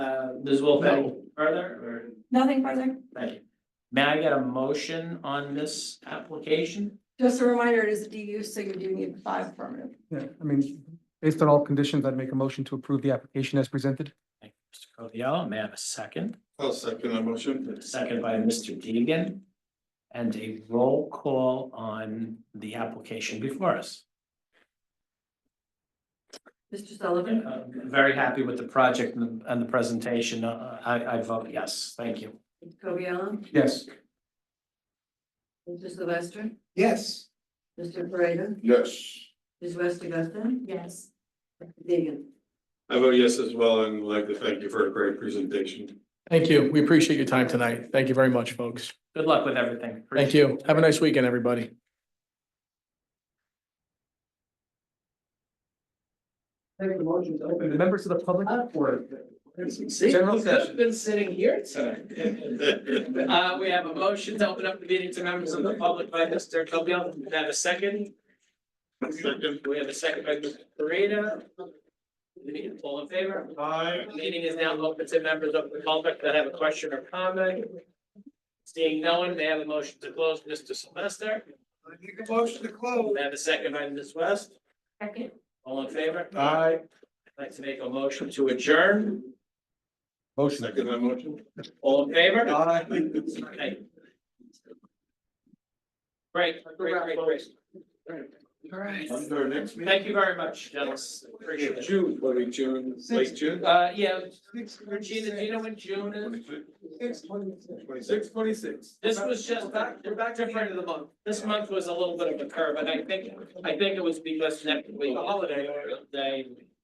Ms. Uh, Wolf, any further or? Nothing further. Thank you. May I get a motion on this application? Just a reminder, it is a DU, so you do need five affirmative. Yeah, I mean, based on all conditions, I'd make a motion to approve the application as presented. Thank you, Mr. Covial. May I have a second? I'll second that motion. Second by Mr. Deegan. And a roll call on the application before us. Mr. Sullivan? I'm Uh, Very happy with the project and the- and the presentation. Uh, I, I vote yes. Thank you. Mr. Covial? Yes. Mr. Sylvester? Yes. Mr. Pareda? Yes. Ms. West Augusta? Yes. Deegan? I vote yes as well, and would like to thank you for a great presentation. Thank you. We appreciate your time tonight. Thank you very much, folks. Good luck with everything. Thank you. Have a nice weekend, everybody. The members of the public. See, General we could have session. been sitting here tonight. Uh, we have a motion to open up the meeting to members of the public by Mr. Covial. We have a second. Second. We have a second by Mr. Pareda. Meeting, All in favor? Aye. Meeting is now open to members of the public that have a question or comment. Seeing no one, may I have a motion to close, Mr. Sylvester? Make a motion to close. May I have a second by Ms. West? Second. All in favor? Aye. I'd like to make a motion to adjourn. Motion. Second that motion. All in favor? Aye. Okay. Great, great, great, great. All right. Under our next meeting. Thank you very much, gentlemen. Appreciate it. June, what are we, June, late June? Uh, yeah, Regina, do you know when June is? Six twenty-six. Twenty-six, twenty-six. This was just back, we're back to front of the month. This month was a little bit of a curve, and I think, I think it was because next week, holiday, day,